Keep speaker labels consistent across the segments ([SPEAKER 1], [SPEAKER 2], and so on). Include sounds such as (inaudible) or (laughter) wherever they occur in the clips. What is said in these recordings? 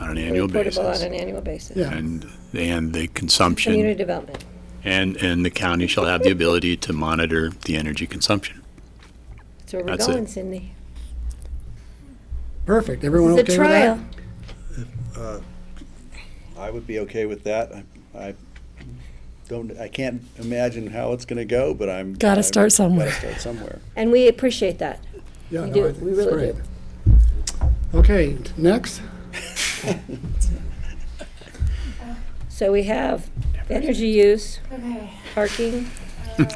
[SPEAKER 1] on an annual
[SPEAKER 2] Reportable on
[SPEAKER 1] basis.
[SPEAKER 2] an annual basis.
[SPEAKER 3] Yeah.
[SPEAKER 1] And, and the consumption,
[SPEAKER 2] Community development.
[SPEAKER 1] and, and the county shall have the ability to monitor the energy consumption.
[SPEAKER 2] That's where we're
[SPEAKER 1] That's it.
[SPEAKER 2] going, Cindy.
[SPEAKER 3] Perfect. Everyone
[SPEAKER 2] It's a
[SPEAKER 3] okay with that?
[SPEAKER 2] trial.
[SPEAKER 4] I would be okay with that. I, I don't, I can't imagine how it's gonna go, but I'm.
[SPEAKER 5] Gotta
[SPEAKER 4] I'm-
[SPEAKER 5] start somewhere.
[SPEAKER 4] Gotta start somewhere.
[SPEAKER 2] And we appreciate that.
[SPEAKER 3] Yeah,
[SPEAKER 2] We
[SPEAKER 3] no,
[SPEAKER 2] do.
[SPEAKER 3] I think
[SPEAKER 2] We
[SPEAKER 3] it's
[SPEAKER 2] really
[SPEAKER 3] great.
[SPEAKER 2] do.
[SPEAKER 3] Okay, next.
[SPEAKER 1] (laughs)
[SPEAKER 4] (laughs)
[SPEAKER 2] So we have energy use,
[SPEAKER 1] (laughs)
[SPEAKER 6] Okay.
[SPEAKER 2] parking.
[SPEAKER 6] Um,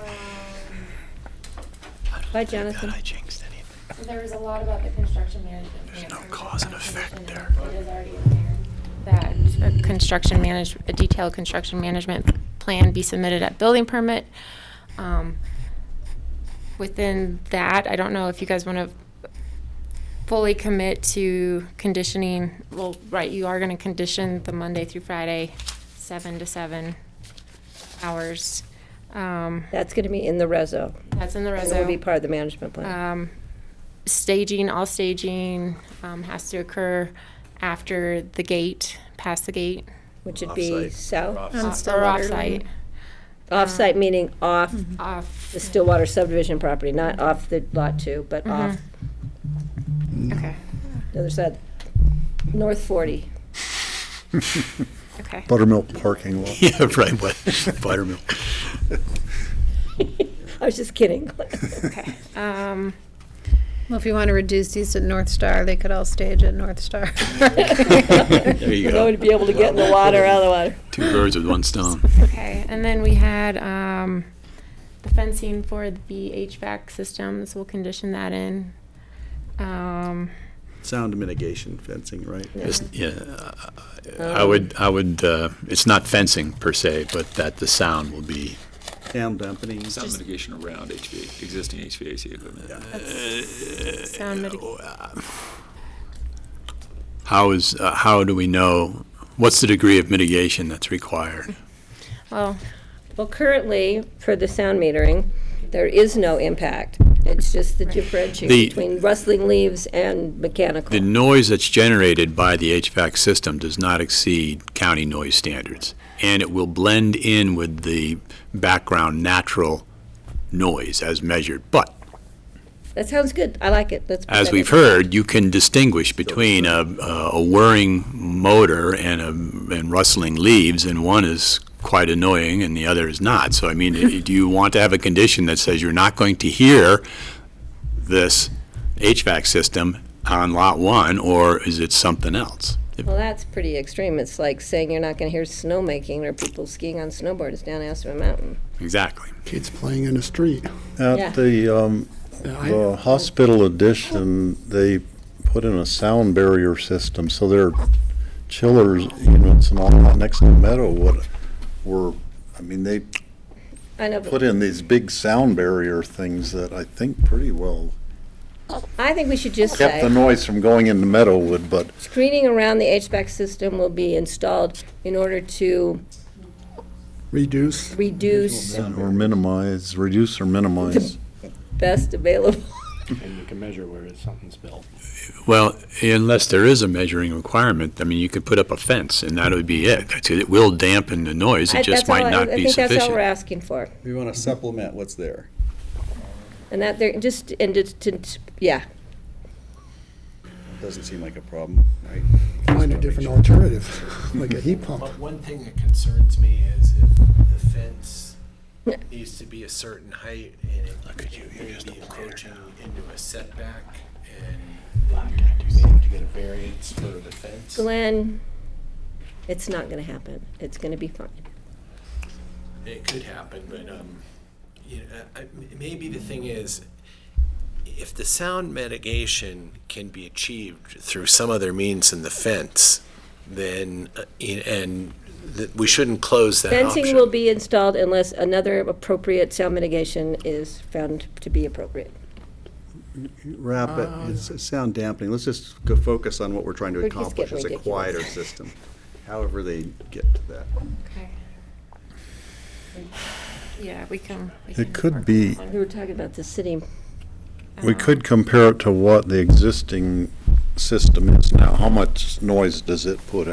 [SPEAKER 2] Bye, Jonathan.
[SPEAKER 1] I jinxed it.
[SPEAKER 6] there was a lot about the construction management. There's
[SPEAKER 1] no cause and effect
[SPEAKER 6] It is already in there. That a construction manage, a detailed construction management plan be submitted at building permit. Um, Within that, I don't know if you guys want to fully commit to conditioning, well, right, you are going to condition the Monday through Friday, seven to seven hours. Um,
[SPEAKER 2] That's going to be in the reso.
[SPEAKER 6] That's in the
[SPEAKER 2] And
[SPEAKER 6] reso.
[SPEAKER 2] it will be part of the management plan.
[SPEAKER 6] Um, staging, all staging um, has to occur after the gate, past the gate,
[SPEAKER 2] Which would be
[SPEAKER 4] Offsite.
[SPEAKER 2] south,
[SPEAKER 6] off- or
[SPEAKER 5] Stillwater
[SPEAKER 6] off-site,
[SPEAKER 2] off-site meaning off
[SPEAKER 6] off,
[SPEAKER 2] the Stillwater subdivision property, not off the lot two, but off
[SPEAKER 6] okay,
[SPEAKER 2] the other side, north forty. (laughs)
[SPEAKER 6] okay.
[SPEAKER 4] Buttermilk parking lot.
[SPEAKER 1] (laughs) Yeah, right, what, buttermilk.
[SPEAKER 2] I was
[SPEAKER 1] (laughs)
[SPEAKER 2] just kidding.
[SPEAKER 6] Um,
[SPEAKER 7] Well, if you want to reduce these at North Star, they could all stage at North Star.
[SPEAKER 1] There
[SPEAKER 2] (laughs)
[SPEAKER 1] you
[SPEAKER 2] No
[SPEAKER 1] go.
[SPEAKER 2] one to be able to get in the water, out of the water.
[SPEAKER 1] Two birds with one stone.
[SPEAKER 6] Okay, and then we had um, the fencing for the HVAC systems, we'll condition that in. Um,
[SPEAKER 4] Sound mitigation fencing, right?
[SPEAKER 1] It's- Yeah, I- I would, I would, uh, it's not fencing per se, but that the sound will be,
[SPEAKER 4] Sound dampening.
[SPEAKER 8] Sound mitigation around HVAC, existing HVAC equipment.
[SPEAKER 6] Sound mitig-
[SPEAKER 1] how is, uh, how do we know, what's the degree of mitigation that's required?
[SPEAKER 6] well,
[SPEAKER 2] Well, currently, for the sound metering, there is no impact. It's just the differentiation
[SPEAKER 1] The-
[SPEAKER 2] between rustling leaves and mechanical.
[SPEAKER 1] The noise that's generated by the HVAC system does not exceed county noise standards, and it will blend in with the background natural noise as measured. But
[SPEAKER 2] That sounds good. I like it. Let's. put
[SPEAKER 1] as
[SPEAKER 2] that in.
[SPEAKER 1] we've heard, you can distinguish between a, a whirring motor and a, and rustling leaves, and one is quite annoying and the other is not. So I
[SPEAKER 2] (laughs)
[SPEAKER 1] mean, i- do you want to have a condition that says you're not going to hear this HVAC system on lot one, or is it something else? If-
[SPEAKER 2] Well, that's pretty extreme. It's like saying you're not going to hear snowmaking or people skiing on snowboards down Aspen Mountain.
[SPEAKER 1] Exactly.
[SPEAKER 3] Kids playing in the street.
[SPEAKER 2] Yeah.
[SPEAKER 9] At the, um,
[SPEAKER 3] Oh, Yeah, I-
[SPEAKER 9] the hospital addition, they put in a sound barrier system, so their chillers units and all that next to the meadow would, were, I mean, they
[SPEAKER 2] I know,
[SPEAKER 9] put
[SPEAKER 2] but
[SPEAKER 9] in these big sound barrier things that I think pretty well
[SPEAKER 2] I think we should just
[SPEAKER 9] kept the
[SPEAKER 2] say,
[SPEAKER 9] noise from going into Meadowwood, but
[SPEAKER 2] screening around the HVAC system will be installed in order to
[SPEAKER 3] Reduce.
[SPEAKER 2] reduce
[SPEAKER 9] or minimize, reduce or minimize.
[SPEAKER 2] best available.
[SPEAKER 10] And you can measure where something's built.
[SPEAKER 1] Well, unless there is a measuring requirement, I mean, you could put up a fence and that would be it. That's it. It will dampen the noise.
[SPEAKER 2] I-
[SPEAKER 1] It just
[SPEAKER 2] that's all
[SPEAKER 1] might
[SPEAKER 2] I-
[SPEAKER 1] not be
[SPEAKER 2] I think that's all we're
[SPEAKER 1] sufficient.
[SPEAKER 2] asking for.
[SPEAKER 4] We want to supplement what's there.
[SPEAKER 2] And that, they're just, and it's, to- yeah,
[SPEAKER 4] Doesn't seem like a problem, right?
[SPEAKER 3] Find a different alternative, (laughs) like a heat pump.
[SPEAKER 11] But one thing that concerns me is if the fence needs to be a certain height and it may be encroaching into a setback and then you may have to get a variance for the fence.
[SPEAKER 2] Glenn, it's not gonna happen. It's gonna be fine.
[SPEAKER 11] It could happen, but, um, you know, I, I- maybe the thing is, if the sound mitigation can be achieved through some other means than the fence, then, uh, y- and th- we shouldn't close that option.
[SPEAKER 2] Fencing will be installed unless another appropriate sound mitigation is found to be appropriate.
[SPEAKER 4] Wrap it, it's it's sound dampening. Let's just go focus on what we're trying to
[SPEAKER 2] Oh. We're just
[SPEAKER 4] accomplish
[SPEAKER 2] getting
[SPEAKER 4] as a
[SPEAKER 2] ridiculous.
[SPEAKER 4] quieter system, however they get to that.
[SPEAKER 6] okay. Yeah, we can. we can
[SPEAKER 9] It could
[SPEAKER 6] work
[SPEAKER 9] be
[SPEAKER 2] We were talking about the city,
[SPEAKER 9] We could compare it to what the existing system is now, how much noise does it put out?